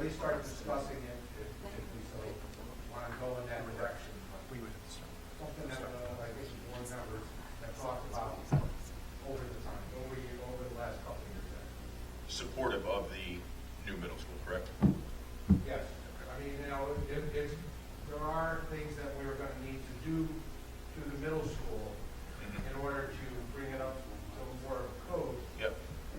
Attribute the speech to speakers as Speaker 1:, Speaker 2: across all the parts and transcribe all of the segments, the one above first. Speaker 1: least start discussing it if, if we so want to go in that direction.
Speaker 2: We would.
Speaker 1: Something that, uh, I think the board members have talked about over the time, over, the- over the last couple of years.
Speaker 3: supportive of the new middle school, correct?
Speaker 1: Yes, I mean, you know, if, if, there are things that we're gonna need to do to the middle school in
Speaker 4: Mm-hmm.
Speaker 1: order to bring it up to more code,
Speaker 3: Yep.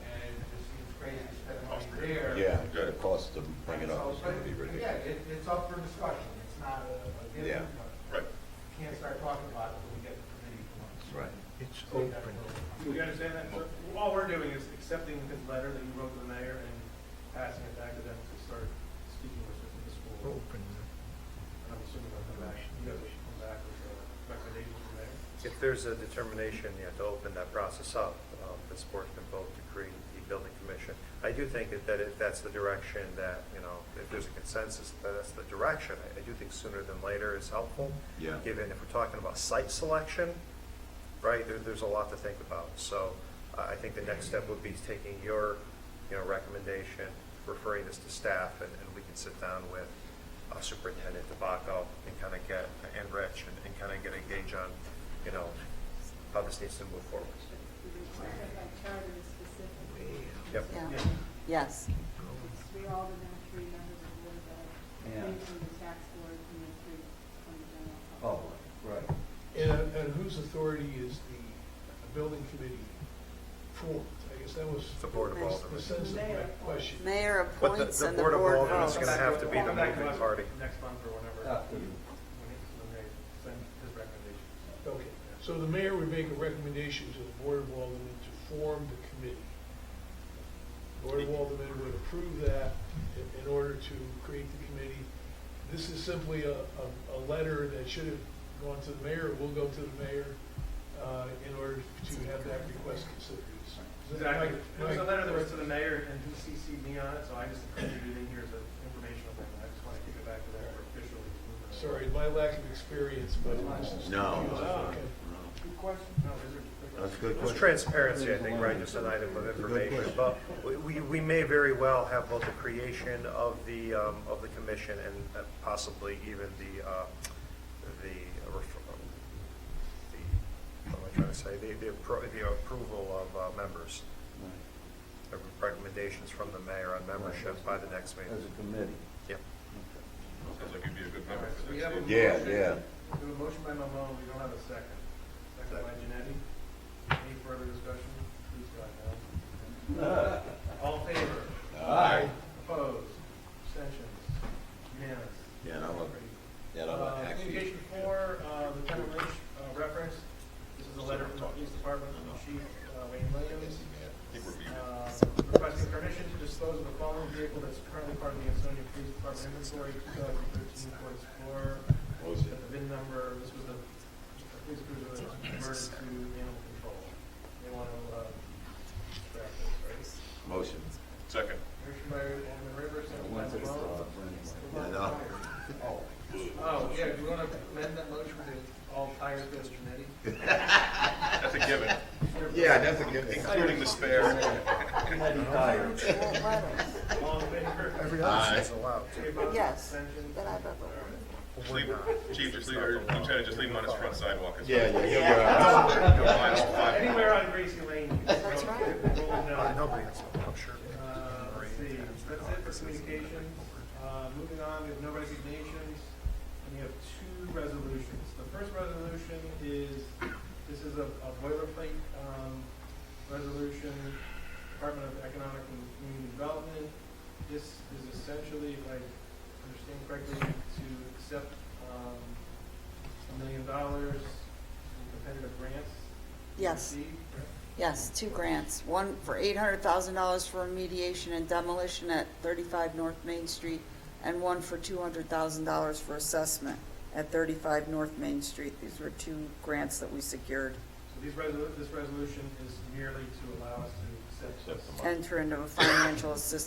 Speaker 1: and it just seems crazy to spend
Speaker 3: Cost
Speaker 1: money
Speaker 3: per-
Speaker 1: there.
Speaker 5: Yeah, the
Speaker 3: Good.
Speaker 5: cost to bring it up
Speaker 1: So,
Speaker 5: is going to be
Speaker 1: but,
Speaker 5: ridiculous.
Speaker 1: Again, it, it's up for discussion, it's not a, a
Speaker 5: Yeah.
Speaker 1: given, but
Speaker 3: Right.
Speaker 1: can't start talking about it until we get the committee.
Speaker 5: That's right.
Speaker 2: It's
Speaker 1: going.
Speaker 2: open.
Speaker 4: Do you understand that? So all we're doing is accepting his letter that you wrote to the mayor and passing it back to them to start speaking with the school.
Speaker 2: Open.
Speaker 4: And I'm assuming they'll come back, you guys will come back with a recommendation from there.
Speaker 6: If there's a determination, you have to open that process up, um, this board can vote to create the building commission. I do think that- that if that's the direction that, you know, if there's a consensus that that's the direction, I- I do think sooner than later is helpful.
Speaker 5: Yeah.
Speaker 6: Given if we're talking about site selection, right, there, there's a lot to think about. So uh, I I think the next step would be taking your, you know, recommendation, referring this to staff, and, and we can sit down with uh, Superintendent DeBacco and kind of get, and Rich, and, and kind of get a gauge on, you know, how this needs to move forward.
Speaker 7: required by charter is specific.
Speaker 6: Yep.
Speaker 8: Yeah,
Speaker 4: Yeah.
Speaker 8: yes.
Speaker 7: Three aldermen, three members of the board of ed,
Speaker 5: Yeah.
Speaker 7: three from the tax board, and then three from the general
Speaker 5: Oh,
Speaker 7: public.
Speaker 5: right.
Speaker 9: And, and whose authority is the building committee formed? I guess that was
Speaker 6: It's the Board of
Speaker 9: the
Speaker 6: Aldermen.
Speaker 9: sense of my question.
Speaker 8: Mayor
Speaker 6: But the,
Speaker 8: appoints
Speaker 6: the
Speaker 8: and the
Speaker 6: Board of
Speaker 8: board
Speaker 6: Aldermen is
Speaker 8: votes.
Speaker 6: going to have to be the
Speaker 4: Come back to
Speaker 6: moving
Speaker 4: us
Speaker 6: party.
Speaker 4: Next month or whenever,
Speaker 5: After
Speaker 4: when
Speaker 5: you.
Speaker 4: he- when they send his recommendation.
Speaker 9: Okay, so the mayor would make a recommendation to the Board of Aldermen to form the committee. Board of Aldermen would approve that in, in order to create the committee. This is simply a, a, a letter that should have gone to the mayor, will go to the mayor, uh, in order to have that request considered. Is that
Speaker 4: Exactly.
Speaker 9: my-
Speaker 4: It was a
Speaker 9: my-
Speaker 4: letter that was to the mayor and he CC'd me on it, so I just included it in here as an informational thing. I just want to kick it back to them officially.
Speaker 9: Sorry, my lack of experience, but this is.
Speaker 5: No.
Speaker 9: Okay.
Speaker 1: Good question.
Speaker 4: No, these are-
Speaker 5: That's a good
Speaker 6: There's
Speaker 5: question.
Speaker 6: transparency, I think, right, just an item of
Speaker 5: It's a good
Speaker 6: information,
Speaker 5: question.
Speaker 6: but we- we, we may very well have both the creation of the, um, of the commission and uh, possibly even the, uh, the, uh, ref- um, the- what am I trying to say, the, the appro- the approval of uh, members, the recommendations from the mayor on membership by the next
Speaker 5: As
Speaker 6: meeting.
Speaker 5: a committee.
Speaker 6: Yep.
Speaker 3: Sounds like you'd be a good
Speaker 4: All
Speaker 3: member
Speaker 4: right, so
Speaker 3: for
Speaker 4: we
Speaker 3: that.
Speaker 4: have a
Speaker 3: Steve.
Speaker 5: Yeah,
Speaker 4: motion.
Speaker 5: yeah.
Speaker 4: We have a motion by Mamon, we don't have a second. Second by Janetti. Any further discussion? Please go ahead. All in favor?
Speaker 5: Aye.
Speaker 4: Opposed? Abstentions? Unanimous?
Speaker 5: Yeah, and I love Yeah, and I
Speaker 4: Uh,
Speaker 5: love actually.
Speaker 4: Communication four, uh, Lieutenant Lynch, uh, reference. This is a letter from the police department from Chief uh, Wayne Williams.
Speaker 3: I think we're good.
Speaker 4: Uh, Requesting permission to dispose of the following vehicle that's currently part of the Ansonia Police Department inventory, 2013 Ford Explorer.
Speaker 5: What was it?
Speaker 4: At the VIN number, this was the the police cruiser that was converted to animal control. They want to uh, grab this, right?
Speaker 5: Motion.
Speaker 3: Second.
Speaker 4: Motion by Alderman Rivers, second by
Speaker 5: When's it, uh,
Speaker 4: Malone.
Speaker 5: when? I know.
Speaker 4: Oh, yeah, do you want to amend that motion to all tires go to Janetti?
Speaker 3: That's a given,
Speaker 5: Yeah, that's a good thing.
Speaker 3: including the spare.
Speaker 8: Well, letters.
Speaker 4: All in favor?
Speaker 6: Every option is allowed.
Speaker 4: Any opposed?
Speaker 8: Yes,
Speaker 4: Abstentions?
Speaker 8: but I vote.
Speaker 3: Just leave- Chief, just leave, or Lieutenant, just leave him on his front sidewalk. It's
Speaker 5: Yeah,
Speaker 3: fine.
Speaker 5: yeah, yeah.
Speaker 3: Come on, it's fine.
Speaker 4: Anywhere on Gracie Lane. That's
Speaker 8: right.
Speaker 6: Uh, Nobody else, I'm sure.
Speaker 4: Uh, let's see, that's it for communications. Uh, moving on, we have no resignations, and we have two resolutions. The first resolution is, this is a a boilerplate, um, resolution, Department of Economic and Community Development. This is essentially, if I understand correctly, to accept, um, a million dollars in competitive grants.
Speaker 8: Yes.
Speaker 4: Received, correct?
Speaker 8: yes, two grants, one for eight hundred thousand dollars for remediation and demolition at thirty-five North Main Street, and one for two hundred thousand dollars for assessment at thirty-five North Main Street. These were two grants that we secured.
Speaker 4: So these resolu, this resolution is merely to allow us to accept this.
Speaker 8: Enter into a financial assistance